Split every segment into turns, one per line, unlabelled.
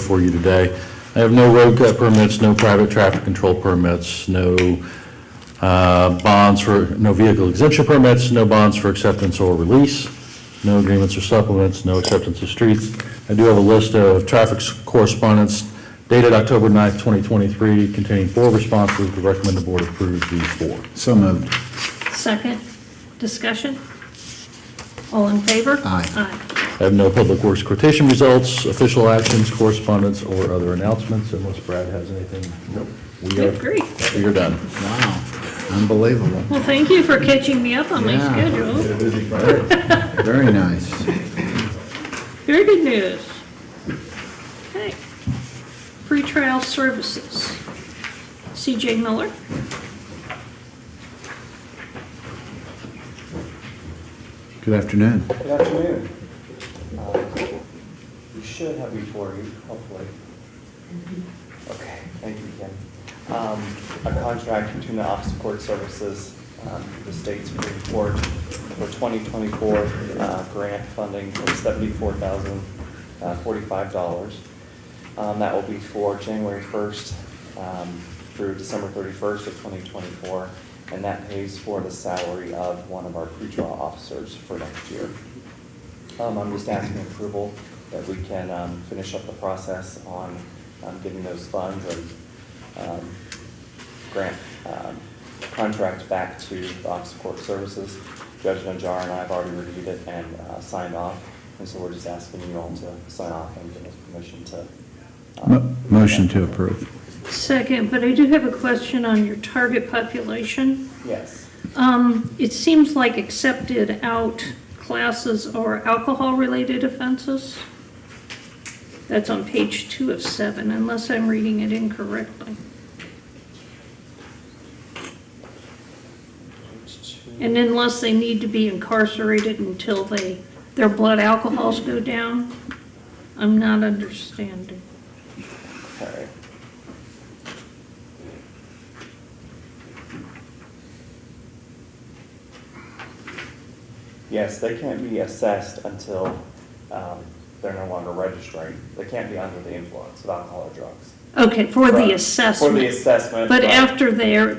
for you today. I have no road cut permits, no private traffic control permits, no uh, bonds for, no vehicle exemption permits, no bonds for acceptance or release, no agreements or supplements, no acceptance of streets. I do have a list of traffic correspondence dated October 9th, 2023, containing four responses. We recommend the board approve these four.
So moved.
Second, discussion? All in favor?
Aye.
Aye.
I have no public works quotation results, official actions, correspondence, or other announcements, unless Brad has anything. Nope. We
I
are,
agree.
we are done.
Wow, unbelievable.
Well, thank you for catching me up on my
Yeah.
schedule.
Very nice.
Very good news. Okay. Pretrial services. CJ Miller?
Good afternoon.
Good afternoon. Uh, We should have before you, hopefully. Okay, thank you again. Um, A contract between the Office of Court Services, um, the state's Supreme Court for 2024 uh, grant funding of $74,045. Um, That will be for January 1st um, through December 31st of 2024, and that pays for the salary of one of our pretrial officers for next year. Um, I'm just asking approval that we can, um, finish up the process on, um, getting those funds and, um, grant, um, contract back to the Office of Court Services. Judge Najjar and I have already reviewed it and, uh, signed off, and so we're just asking you all to sign off and give us permission to. um,
Mo- Motion to approve.
Second, but I do have a question on your target population.
Yes,
Um, it seems like accepted out classes are alcohol-related offenses. That's on page two of seven, unless I'm reading it incorrectly. And unless they need to be incarcerated until they, their blood alcohols go down? I'm not understanding.
okay. Yes, they can't be assessed until um, they're no longer registering. They can't be under the influence of alcohol or drugs.
Okay, for
Right.
the assessment.
For the assessment.
But
right.
after their,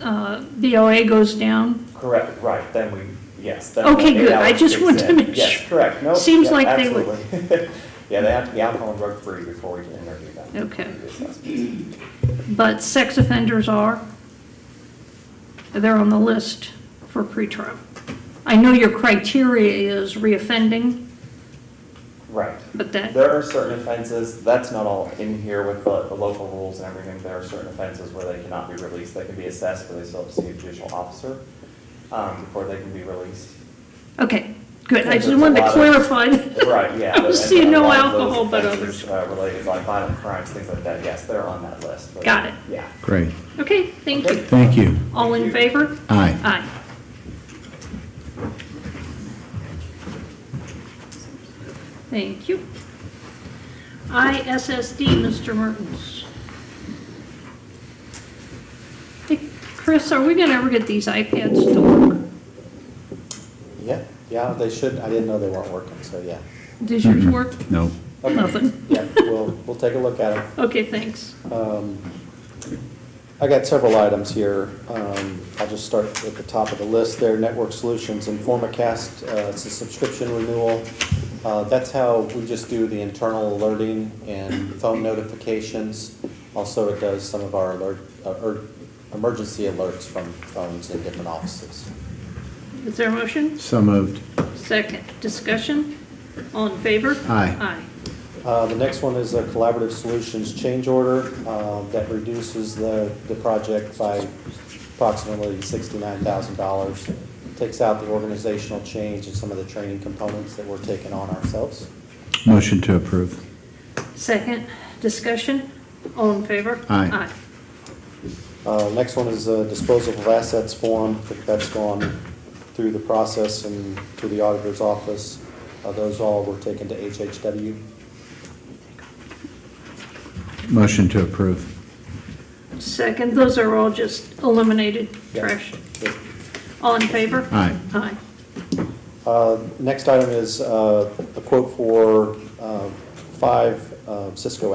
uh, BOA goes down?
Correct, right, then we, yes. then
Okay,
the
good. I
eight hours
just
kicks
wanted to
in.
make
Yes,
sure.
correct, no.
Seems
yeah,
like they would-
absolutely. Yeah, they have to be alcohol and drug free before we can interview them.
Okay.
Do the assessment.
But sex offenders are, they're on the list for pretrial. I know your criteria is reoffending,
Right.
but that,
There are certain offenses, that's not all in here with the, the local rules and everything, there are certain offenses where they cannot be released, they can be assessed, but they still have to see a judicial officer, um, before they can be released.
okay, good. I just
There's a
wanted to
lot of-
clarify. that.
Right, yeah.
I was
and
seeing
a
no
lot of those
alcohol, but
offenses,
others.
Uh, related like violent crimes, things like that, yes, they're on that list. but-
Got it.
Yeah.
Great.
Okay, thank you.
Thank you.
All in favor?
Aye.
Aye. Thank you. ISSD, Mr. Mertens. Hey, Chris, are we gonna ever get these iPads to work?
Yeah, yeah, they should, I didn't know they weren't working, so yeah.
Does yours work?
No.
Nothing.
Yeah, we'll, we'll take a look at it.
Okay, thanks.
Um, I got several items here. Um, I'll just start at the top of the list there, Network Solutions and Formacast, uh, it's a subscription renewal. Uh, That's how we just do the internal alerting and phone notifications. Also, it does some of our alert, uh, er- emergency alerts from phones in different offices.
Is there a motion?
So moved.
Second, discussion? All in favor?
Aye.
Aye.
Uh, The next one is a collaborative solutions change order uh, that reduces the, the project by approximately $69,000. Takes out the organizational change and some of the training components that we're taking on ourselves.
Motion to approve.
Second, discussion? All in favor?
Aye.
Aye.
Uh, Next one is a disposal of assets form. That's gone through the process and to the auditor's office. Uh, Those all were taken to HHW.
Motion to approve.
Second, those are all just eliminated
Yeah.
trash. All in favor?
Aye.
Aye.
Uh, Next item is uh, a quote for uh, five uh, Cisco